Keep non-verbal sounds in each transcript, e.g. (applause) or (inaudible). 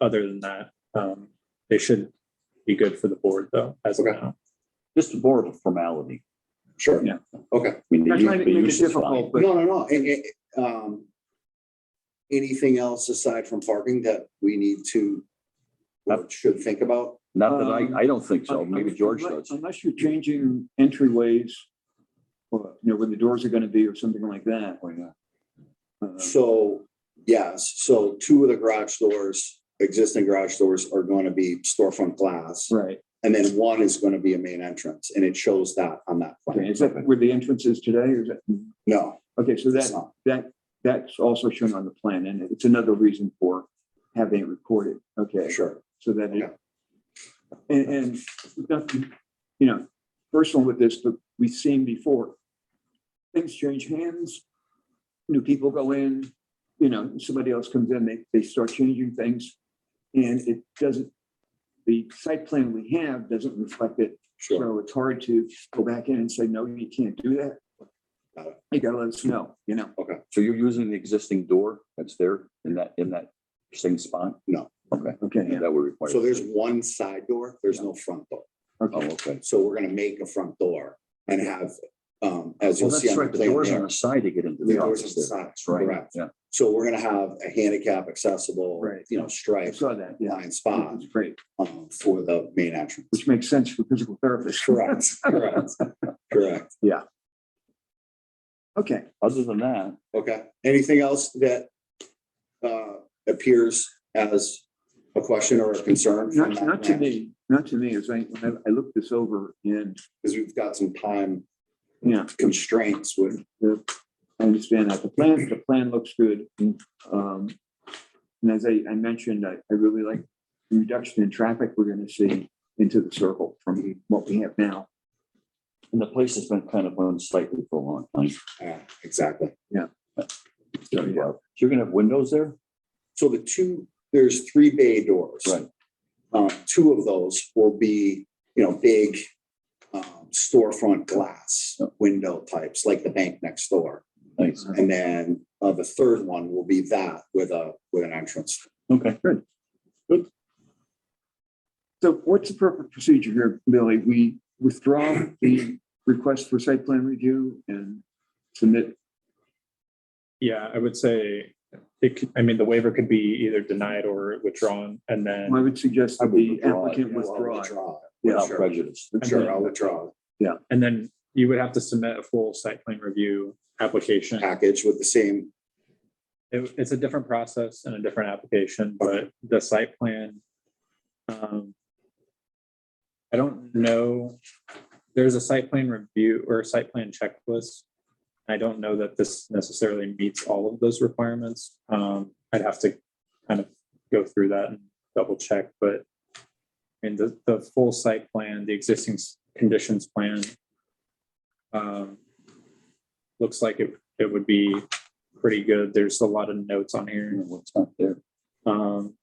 other than that, um, they should be good for the board though, as of Okay. now. Just more of a formality. Sure. Yeah. Okay. I mean, the Not use- trying to the make it use is difficult, fine. But- No, no, no. And, and, um, anything else aside from parking that we need to, or should think about? Not that Um, I, I don't think so. Maybe George Unless- does. Unless you're changing entryways, or, you know, where the doors are gonna be or something like that. Oh, yeah. Uh-huh. Uh, So, yes, so two of the garage doors, existing garage doors are going to be storefront glass. Right, And then one is going to be a main entrance and it shows that on that okay, plan. is that where the entrance is today, or is that, No, okay, so that's that, not. that, that's also shown on the plan, and it's another reason for having it recorded, okay? Sure. So that Yeah. it. And, and, nothing, you know, personal with this, but we've seen before, things change hands. New people go in, you know, somebody else comes in, they, they start changing things. And it doesn't, the site plan we have doesn't reflect it, Sure. so it's hard to go back in and say, no, you can't do that. Got it. You gotta let us know, you know, So you're using the existing door that's there in that, in that same spot? No. Okay, okay, yeah, that would require. So there's one side door, there's no front door. Oh, okay, okay. So we're going to make a front door and have, um, as Well, you'll see that's on the right. The plan door's on there. the side to get into The the doors on office the there. side. That's right. Correct. Yeah. So we're gonna have a handicap accessible, Right. you know, I striped saw that, yeah. blind spot It's great, um, for the main entrance. which makes sense for physical therapists. Correct, (laughs) correct, correct. Okay, Other than that, Okay. Anything else that uh, appears as a question or a concern? Not, not to me, not to me, as I, when I I looked this over and, Because we've got some time yeah, constraints with, I understand that. The plan, the plan looks good. Um, and as I, I mentioned, I, I really like the reduction in traffic we're gonna see into the circle from what we have now. and the place has been kind of unsightly for a long time. uh, exactly. So yeah. You're gonna have windows there? So the two, there's three bay doors. Right. Um, two of those will be, you know, big um, storefront glass window types, like the bank next door. Nice. And then uh, the third one will be that with a, with an entrance. Okay. So what's the proper procedure here, Billy? We withdraw the request for site plan review and submit, Yeah, I would say it could, I mean, the waiver could be either denied or withdrawn and I then would suggest I that would the withdraw it, applicant You know, I'll withdraw. withdraw. it. Yeah, Without prejudice. Sure, I'll withdraw And then you would have to submit a full site plan review application. the package with the same, It- it's a different process and a different application, but the site plan. um, I don't know, there's a site plan review or a site plan checklist. I don't know that this necessarily meets all of those requirements. Um, I'd have to kind of go through that and double check, but. And the, the full site plan, the existing s- conditions plan. um, Looks like it, it would be pretty good. There's a lot of notes on here. What's not there? Um,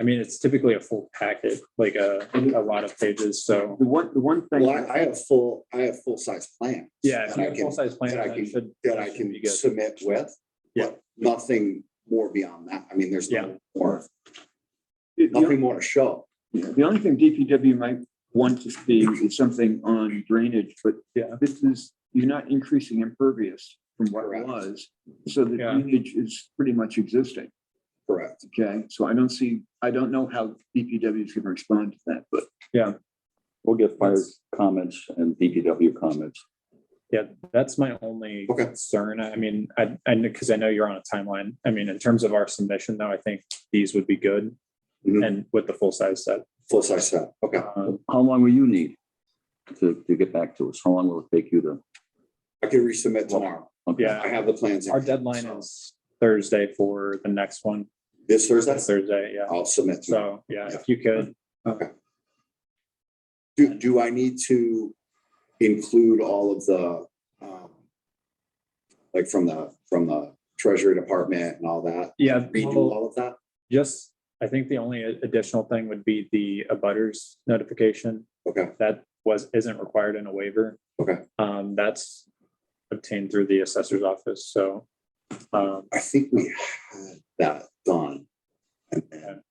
I mean, it's typically a full packet, like a, a lot of pages, so. The one, the one thing. well, I I have full, I have full-size plan. Yeah, if That you I have a can, full-size plan, that I that can- should. that I should can be good. submit with. Yeah. but Nothing more beyond that. I mean, there's Yeah. no more, the- the nothing more to show. Yeah, the only thing DPW might want to see is something on drainage, but Yeah. this is, you're not increasing impervious from what it Correct. was. So the Yeah. drainage is pretty much existing, Correct. okay? So I don't see, I don't know how DPW is gonna respond to that, but We'll get fire That's- comments and DPW comments. Yeah, that's my only Okay. concern. I mean, I, I, because I know you're on a timeline. I mean, in terms of our submission, though, I think these would be good. Mhm. And with the full-size set. Full-size set. Okay. Uh, How long will you need to, to get back to us? How long will it take you to? I can resubmit tomorrow. okay. Yeah. I have the plans. in Our hand, deadline so is Thursday for the next one, This Thursday? That's Thursday, yeah. I'll submit. tomorrow. So, yeah, if you could, Do, do I need to include all of the, um, like from the, from the treasury department and all that? yeah. Redo we'll- all of that? Just, I think the only additional thing would be the abutters notification. Okay, That was, isn't required in a waiver. Okay. Um, that's obtained through the assessor's office, so. Um, I think we had that done. And then